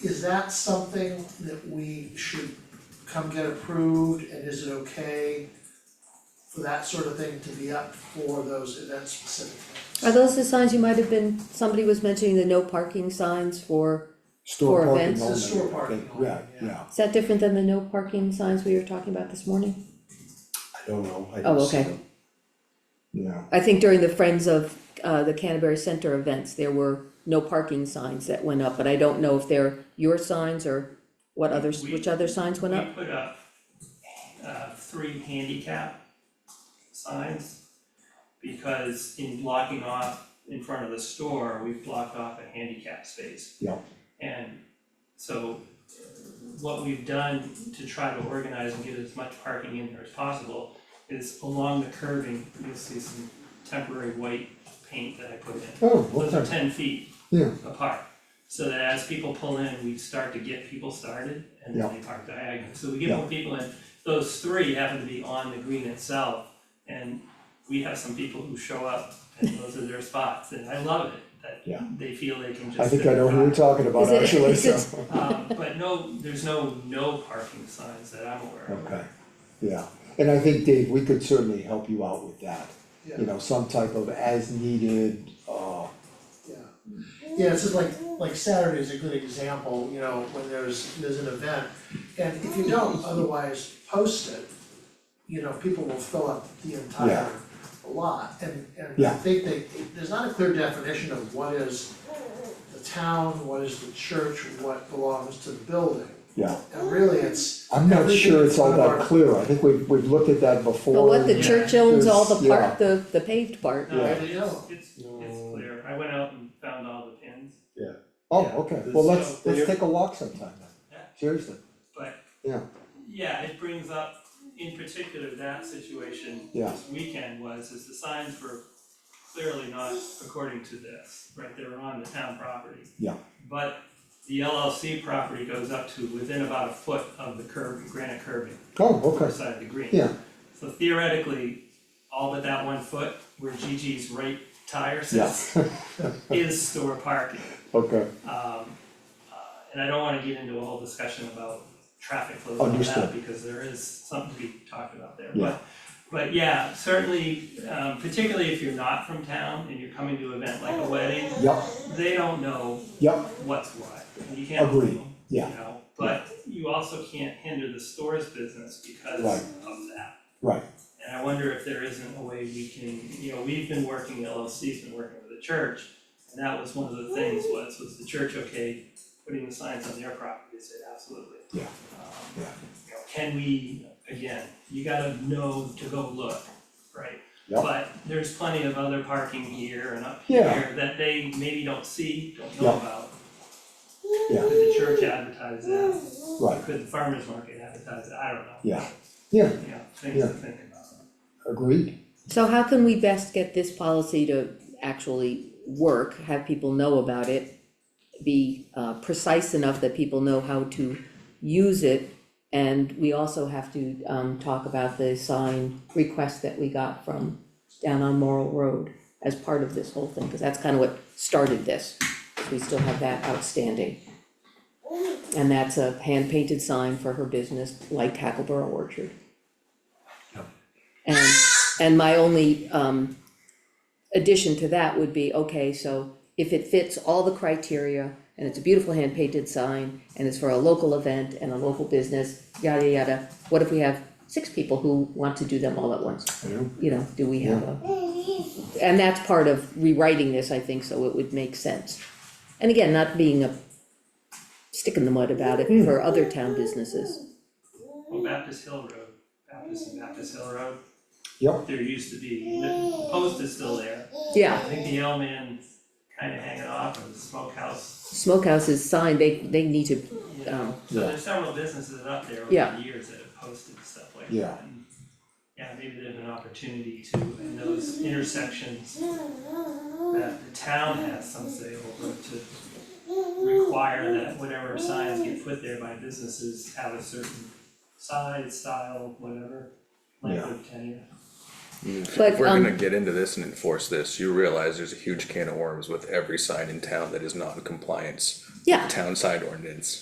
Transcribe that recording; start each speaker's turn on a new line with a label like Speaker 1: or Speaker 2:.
Speaker 1: Is that something that we should come get approved and is it okay for that sort of thing to be up for those events specifically?
Speaker 2: Are those the signs you might have been, somebody was mentioning the no parking signs for,
Speaker 3: Store
Speaker 2: For
Speaker 3: parking
Speaker 2: events?
Speaker 3: only.
Speaker 1: It's a store
Speaker 3: I
Speaker 1: parking
Speaker 3: think.
Speaker 1: only,
Speaker 3: Yeah,
Speaker 1: yeah.
Speaker 3: yeah,
Speaker 2: is that different than the no parking signs we were talking about this morning?
Speaker 3: I don't know, I
Speaker 2: Oh,
Speaker 3: didn't see
Speaker 2: okay.
Speaker 3: them. Yeah,
Speaker 2: I think during the Friends of, uh, the Canterbury Center events, there were no parking signs that went up, but I don't know if they're your signs or what others, which other signs went up?
Speaker 4: We put up uh three handicap signs. Because in blocking off in front of the store, we've blocked off a handicap space.
Speaker 3: Yeah.
Speaker 4: And so uh, what we've done to try to organize and get as much parking in there as possible is along the curving, you'll see some temporary white paint that I put in.
Speaker 3: oh,
Speaker 4: Those are
Speaker 3: okay,
Speaker 4: ten feet
Speaker 3: yeah,
Speaker 4: apart. So that as people pull in, we start to get people started and then
Speaker 3: Yeah.
Speaker 4: they park diagonally, so we get more people in. Those three happen to be on the green itself and we have some people who show up and those are their spots and I love it.
Speaker 3: Yeah.
Speaker 4: That they feel they can just.
Speaker 3: I think
Speaker 4: sit
Speaker 3: I know who you're
Speaker 4: and
Speaker 3: talking about
Speaker 2: Is it-
Speaker 3: actually,
Speaker 2: is
Speaker 3: so,
Speaker 2: it-
Speaker 4: talk. Um, but no, there's no no parking signs that I'm aware of.
Speaker 3: okay, yeah. And I think, Dave, we could certainly help you out with that, you
Speaker 1: Yeah,
Speaker 3: know, some type of as needed, uh,
Speaker 1: yeah. Yeah, it's just like, like Saturday is a good example, you know, when there's, there's an event. And if you don't otherwise post it, you know, people will fill up the entire
Speaker 3: Yeah.
Speaker 1: lot. And, and I
Speaker 3: Yeah.
Speaker 1: think they, there's not a clear definition of what is the town, what is the church, what belongs to the building.
Speaker 3: yeah.
Speaker 1: And really, it's,
Speaker 3: I'm not
Speaker 1: Everything
Speaker 3: sure it's all
Speaker 1: in front of
Speaker 3: that
Speaker 1: our-
Speaker 3: clear, I think we've, we've looked at that before.
Speaker 2: But Oh, what, the
Speaker 3: and-
Speaker 2: church owns all the
Speaker 3: Yeah.
Speaker 2: part, the, the paved part,
Speaker 4: No,
Speaker 3: Yeah.
Speaker 4: it is, it's it's
Speaker 3: No.
Speaker 4: clear. I went out and found all the pins,
Speaker 3: Oh,
Speaker 4: Yeah.
Speaker 3: okay, well, let's,
Speaker 4: So-
Speaker 3: let's take a walk sometime then,
Speaker 4: Yeah.
Speaker 3: seriously,
Speaker 4: but
Speaker 3: yeah,
Speaker 4: Yeah, it brings up in particular that situation
Speaker 3: Yeah.
Speaker 4: this weekend was, is the signs were clearly not according to this, right, they were on the town property.
Speaker 3: Yeah.
Speaker 4: But the LLC property goes up to within about a foot of the curb, granite curbing,
Speaker 3: oh,
Speaker 4: other
Speaker 3: okay,
Speaker 4: side of the green.
Speaker 3: Yeah.
Speaker 4: So theoretically, all but that one foot where Gigi's right tire sits
Speaker 3: yeah,
Speaker 4: is store parking.
Speaker 3: okay,
Speaker 4: Um, uh, and I don't wanna get into a whole discussion about traffic flows and all that,
Speaker 3: Understood.
Speaker 4: because there is something to be talked about there,
Speaker 3: Yeah.
Speaker 4: but. But yeah, certainly, um, particularly if you're not from town and you're coming to an event like a wedding,
Speaker 3: yep,
Speaker 4: they don't know
Speaker 3: yep,
Speaker 4: what's what, and you can't blame
Speaker 3: Agreed.
Speaker 4: them, you
Speaker 3: Yeah.
Speaker 4: know? But you also can't hinder the store's business because of
Speaker 3: Right.
Speaker 4: that.
Speaker 3: right,
Speaker 4: And I wonder if there isn't a way we can, you know, we've been working, LLC's been working with the church, and that was one of the things was, was the church okay putting the signs on their property, they said absolutely.
Speaker 3: Yeah.
Speaker 4: Um,
Speaker 3: Yeah.
Speaker 4: You know, can we, again, you gotta know to go look, right?
Speaker 3: Yeah.
Speaker 4: But there's plenty of other parking here and up
Speaker 3: Yeah.
Speaker 4: here that they maybe don't see, don't
Speaker 3: Yeah.
Speaker 4: know about.
Speaker 3: Yeah.
Speaker 4: Could the church advertise that,
Speaker 3: right,
Speaker 4: could the farmer's market advertise it, I don't know.
Speaker 3: Yeah. Yeah.
Speaker 4: You know, things to think about.
Speaker 3: agreed,
Speaker 2: So how can we best get this policy to actually work, have people know about it? Be uh precise enough that people know how to use it. And we also have to um talk about the sign request that we got from down on Morrill Road as part of this whole thing, cause that's kind of what started this. We still have that outstanding. And that's a hand painted sign for her business, like Hackleboro Orchard. And, and my only, um, addition to that would be, okay, so if it fits all the criteria, and it's a beautiful hand painted sign, and it's for a local event and a local business, yada, yada, what if we have six people who want to do them all at once?
Speaker 3: Yeah.
Speaker 2: You know, do we have a? And that's part of rewriting this, I think, so it would make sense. And again, not being a stick in the mud about it for other town businesses,
Speaker 4: Well, Baptist Hill Road, Baptist and Baptist Hill Road.
Speaker 3: Yep.
Speaker 4: There used to be, the post is still there.
Speaker 2: yeah.
Speaker 4: I think the L man's kinda hanging off of the smokehouse.
Speaker 2: smokehouses sign, they, they need to,
Speaker 4: you know.
Speaker 2: um,
Speaker 4: So there's several businesses up there over
Speaker 2: Yeah.
Speaker 4: the years that have posted stuff like that.
Speaker 3: Yeah.
Speaker 4: And, Yeah, maybe there's an opportunity to, in those intersections, that the town has some say over to require that whatever signs get put there by businesses have a certain size, style, whatever, length of tenure.
Speaker 2: But,
Speaker 5: If we're gonna
Speaker 2: um,
Speaker 5: get into this and enforce this, you realize there's a huge can of worms with every sign in town that is not in compliance. with
Speaker 2: Yeah.
Speaker 5: Town sign ordinance.